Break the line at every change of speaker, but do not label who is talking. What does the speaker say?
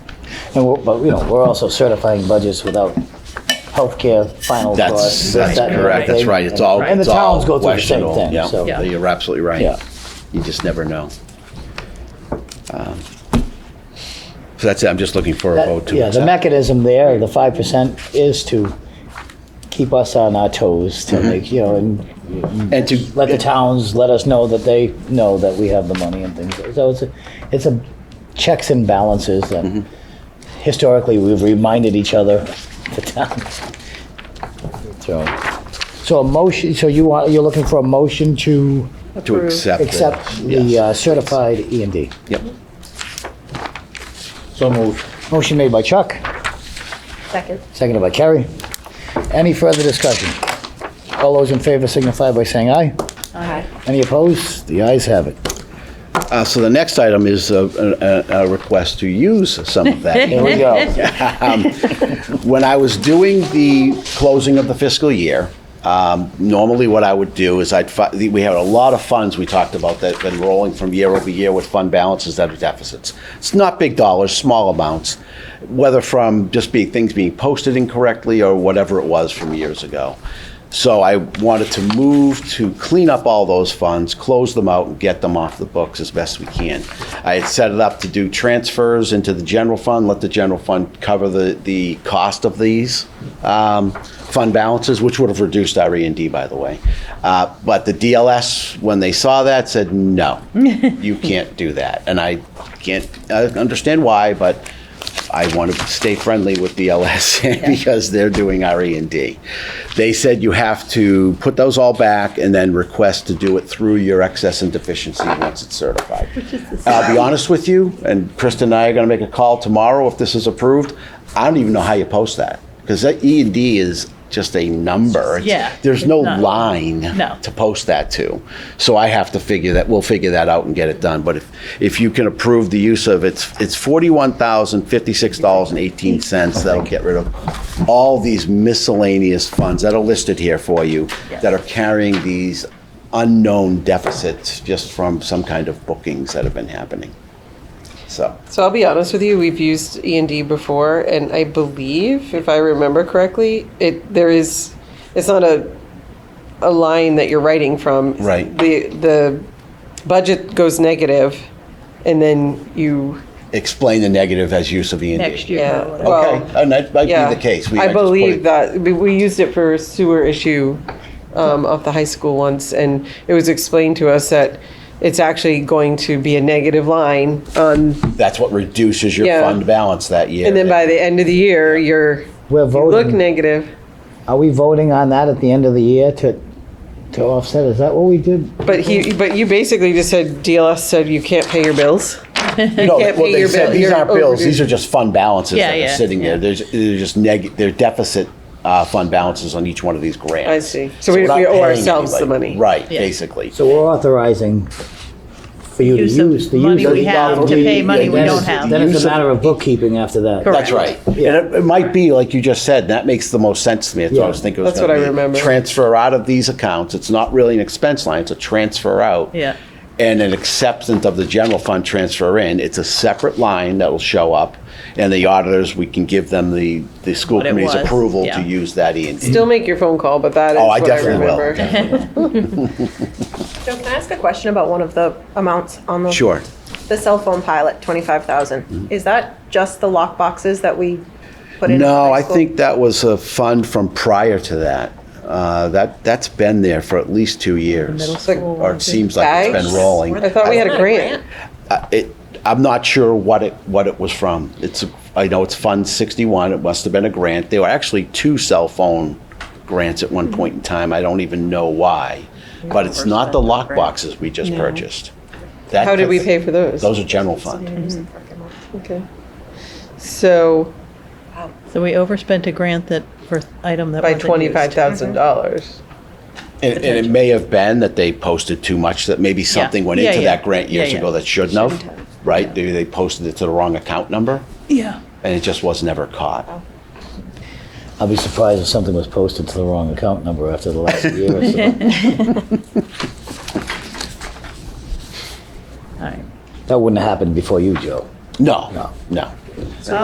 And we're, but, you know, we're also certifying budgets without healthcare final
That's,
costs.
that's
that kind of
correct, that's
thing.
right, it's all,
And the
it's all
towns go through the same
questionable.
thing, so.
Yeah, you're absolutely right.
Yeah.
You just never know. Um, So that's it, I'm just looking for a
That-
vote to
Yeah, the
accept.
mechanism there, the five percent is to keep us on our toes
Mm-hmm.
to make, you know, and
And to,
let the towns let us know that they know that we have the money and things. So it's a, it's a checks and balances that historically we've reminded each other, the towns. So, so a motion, so you want, you're looking for a motion to
to
Approve.
accept. it.
accept the
Yes.
uh, certified E and D?
Yep,
So moved.
Motion made by Chuck.
Second.
Seconded by Kerry. Any further discussion? All those in favor signify by saying aye.
Aye.
Any opposed? The ayes have it.
uh, so the next item is a, a, a request to use some of that.
Here we go.
when I was doing the closing of the fiscal year, um, normally what I would do is I'd, fi- we had a lot of funds we talked about that have been rolling from year over year with fund balances that are deficits. It's not big dollars, small amounts, whether from just being, things being posted incorrectly or whatever it was from years ago. So I wanted to move to clean up all those funds, close them out, and get them off the books as best we can. I had set it up to do transfers into the general fund, let the general fund cover the, the cost of these um, fund balances, which would have reduced our E and D, by the way. Uh, But the DLS, when they saw that, said, no, you can't do that. And I can't uh, understand why, but I want to stay friendly with DLS because they're doing our E and D. They said you have to put those all back and then request to do it through your excess and deficiency once it's certified. I'll be honest with you, and Krista and I are going to make a call tomorrow if this is approved. I don't even know how you post that because that E and D is just a number. It's-
Yeah,
There's
it's
no
not-
line
No.
to post that to. So I have to figure that, we'll figure that out and get it done. But if, if you can approve the use of, it's, it's forty-one thousand, fifty-six dollars and eighteen
Oh,
cents, that'll get rid of all these miscellaneous funds that are listed here for you, that are carrying these unknown deficits just from some kind of bookings that have been happening. So,
So I'll be honest with you, we've used E and D before, and I believe, if I remember correctly, it there is, it's not a, a line that you're writing from.
Right.
The the budget goes negative, and then you
explain the negative as use of E and D.
Next year.
yeah.
or whatever.
Well,
Okay, and that might
yeah.
be the case. We-
I
just put
believe
it-
that we, we used it for a sewer issue um, of the high school once, and it was explained to us that it's actually going to be a negative line on
That's what reduces your
Yeah.
fund balance that year.
And then by the end of the year, you're,
We're
you look
voting.
negative,
Are we voting on that at the end of the year to, to offset? Is that what we did?
but he, but you basically just said, DLS said you can't pay your bills.
No,
can't
well,
pay
they
your
said
bill-
These
your
aren't bills,
overdue.
these are just fund balances
Yeah,
that are
yeah,
sitting there.
yeah.
There's, they're just neg, they're deficit, uh, fund balances on each one of these grants.
I see. So we-
we're not
we owe
paying
ourselves the
anybody.
money.
Right,
Yeah.
basically.
So we're authorizing for you to
Use of
use, the use.
money
of
we
the-
have to pay money we
Then
don't
it's-
have.
Then it's
Use
a
of-
matter of bookkeeping after that.
Correct.
That's right. And it, it might be, like you just said, that makes the most sense to me. That's what I was
Yeah.
thinking it was
That's what
gonna
I
be.
remember.
Transfer out of these accounts. It's not really an expense line, it's a transfer out.
Yeah.
And an acceptance of the general fund transfer in. It's a separate line that will show up. And the auditors, we can give them the, the school
What it
committee's
was,
approval
yeah.
to use that E and D.
Still make your phone call, but that is
Oh, I
what I
definitely will.
remember.
Joe, can I ask a question about one of the amounts on the?
Sure. Mm-hmm.
The cell phone pilot, twenty-five thousand. Is that just the lock boxes that we put in? for
No,
high
I
school?
think that was a fund from prior to that. Uh, That, that's been there for at least two years. Or it seems like it's been
Bags?
rolling.
I thought we had a grant.
Uh, It, I'm not sure what it, what it was from. It's, I know it's Fund 61, it must have been a grant. There were actually two cell phone grants at one point in time, I don't even know why. But it's not the lock boxes we just purchased. That-
How did we pay for those?
Those are general fund.
Okay. So
So we overspent a grant that, for item that
by
wasn't used.
twenty-five thousand dollars.
And, and it may have been that they posted too much, that maybe something went
Yeah,
into
yeah.
that grant years
Yeah, yeah.
ago that shouldn't have, right? Maybe they posted it to the wrong account number,
Yeah.
and it just was never
Oh.
caught.
I'll be surprised if something was posted to the wrong account number after the last year or so.
All right.
That wouldn't have happened before you, Joe.
No,
No.
no.